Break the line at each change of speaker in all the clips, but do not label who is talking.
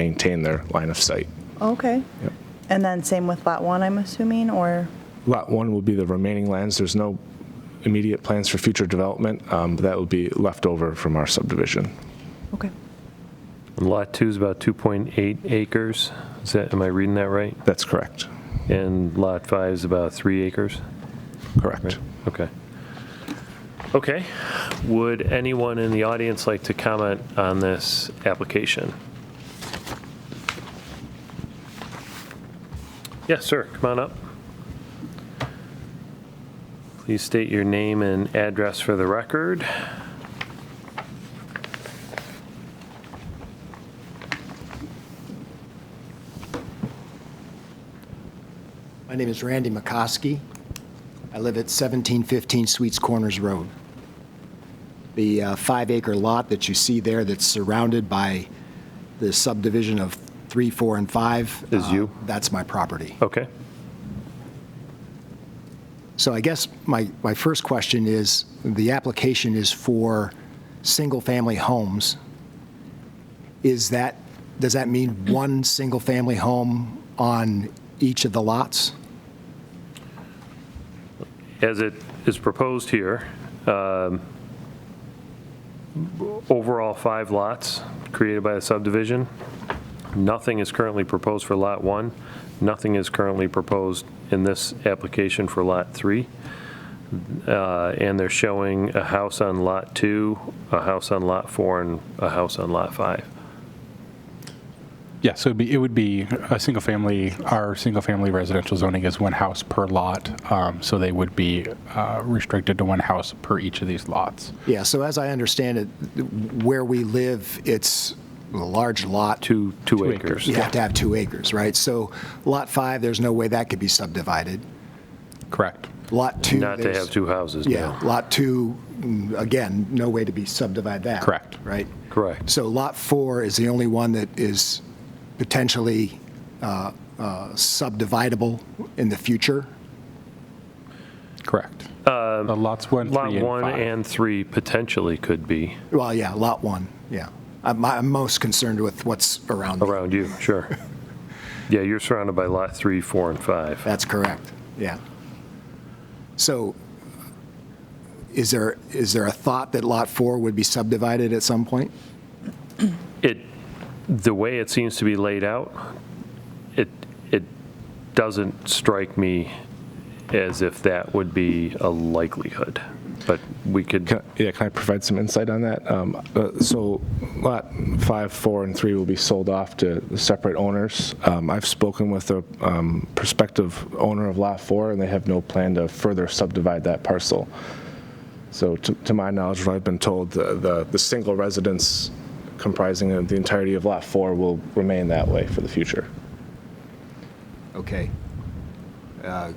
maintain their line of sight.
Okay. And then same with Lot 1, I'm assuming, or,
Lot one will be the remaining lands. There's no immediate plans for future development. Um, but That will be left over from our subdivision.
okay.
Lot 2 is about 2.8 acres. Is that, am I reading that right?
That's correct.
And Lot 5 is about 3 acres?
Correct.
Okay. Okay. Would anyone in the audience like to comment on this application? Yes, sir, come on up. Please state your name and address for the record.
My name is Randy McCoskey. I live at 1715 Sweets Corners Road. The uh, five-acre lot that you see there that's surrounded by the subdivision of 3, 4, and 5.
Is
uh,
you?
That's my property.
Okay.
So I guess my, my first question is, the application is for single-family homes. Is that, does that mean one single-family home on each of the lots?
as it is proposed here, um, overall five lots created by the subdivision. Nothing is currently proposed for Lot 1. Nothing is currently proposed in this application for Lot 3. Uh, And they're showing a house on Lot 2, a house on Lot 4, and a house on Lot 5.
Yeah, so it'd be, it would be a single family, our single family residential zoning is one house per lot. Um, so they would be uh, restricted to one house per each of these lots.
Yeah, so as I understand it, where we live, it's a large lot.
Two, two
Two acres.
acres.
You have to have two acres, right? So Lot 5, there's no way that could be subdivided.
Correct.
Lot 2.
Not to
there's-
have two houses
Yeah,
now.
Lot 2, mm, again, no way to be subdivided that.
Correct.
Right?
Correct.
So Lot 4 is the only one that is potentially uh, uh, subdividable in the future?
Correct. Uh, lots one,
Lot
three, and
1
five.
and 3 potentially could be
Well, yeah, Lot 1, yeah. I'm I'm most concerned with what's around. me.
Around you, sure. Yeah, you're surrounded by lot three, four, and five.
That's correct, yeah. So is there, is there a thought that Lot 4 would be subdivided at some point?
It, the way it seems to be laid out, it, it doesn't strike me as if that would be a likelihood, but we could,
Can, yeah, can I provide some insight on that? Um, uh, so, lot five, four, and three will be sold off to separate owners. Um, I've spoken with a um, prospective owner of lot four, and they have no plan to further subdivide that parcel. So, to, to my knowledge, what I've been told, the, the, the single residence comprising of the entirety of lot four will remain that way for the future.
Okay. Uh,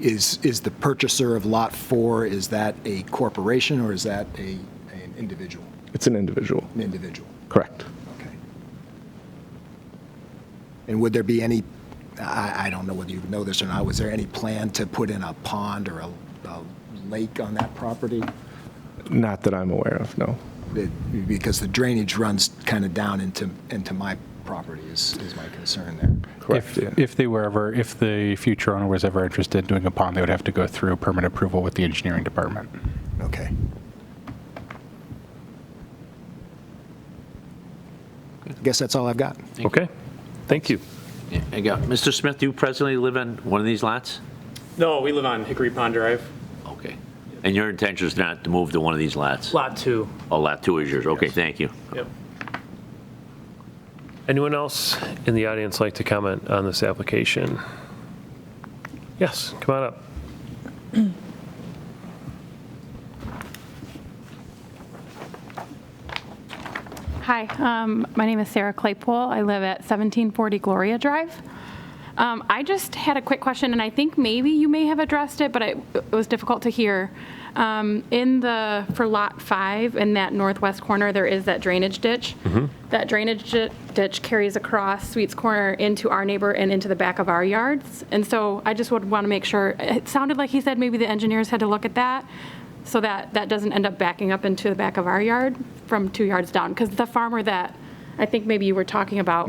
Is, is the purchaser of Lot 4, is that a corporation or is that a, an individual?
It's an individual.
An individual,
Correct.
okay. And would there be any, I, I don't know whether you know this or not, was there any plan to put in a pond or a a lake on that property?
Not that I'm aware of, no.
that- because the drainage runs kind of down into, into my property is, is my concern there.
Correct. yeah.
If, if they were ever, if the future owner was ever interested in doing a pond, they would have to go through permit approval with the engineering department.
Okay. I guess that's all I've got.
okay, thank you.
Yeah, I got, Mr. Smith, do you presently live on one of these lots?
No, we live on Hickory Pond Drive.
Okay. And your intention is not to move to one of these lots?
Lot two.
Oh, lot two is yours, okay, thank you.
Yep.
Anyone else in the audience like to comment on this application? Yes, come on up.
Hi, um, my name is Sarah Claypool. I live at 1740 Gloria Drive. Um, I just had a quick question, and I think maybe you may have addressed it, but it it was difficult to hear. Um, In the, for Lot 5, in that northwest corner, there is that drainage ditch. That drainage di- ditch carries across Sweets Corner into our neighbor and into the back of our yards. And so I just would want to make sure, it sounded like he said maybe the engineers had to look at that, so that that doesn't end up backing up into the back of our yard from two yards down, because the farmer that I think maybe you were talking about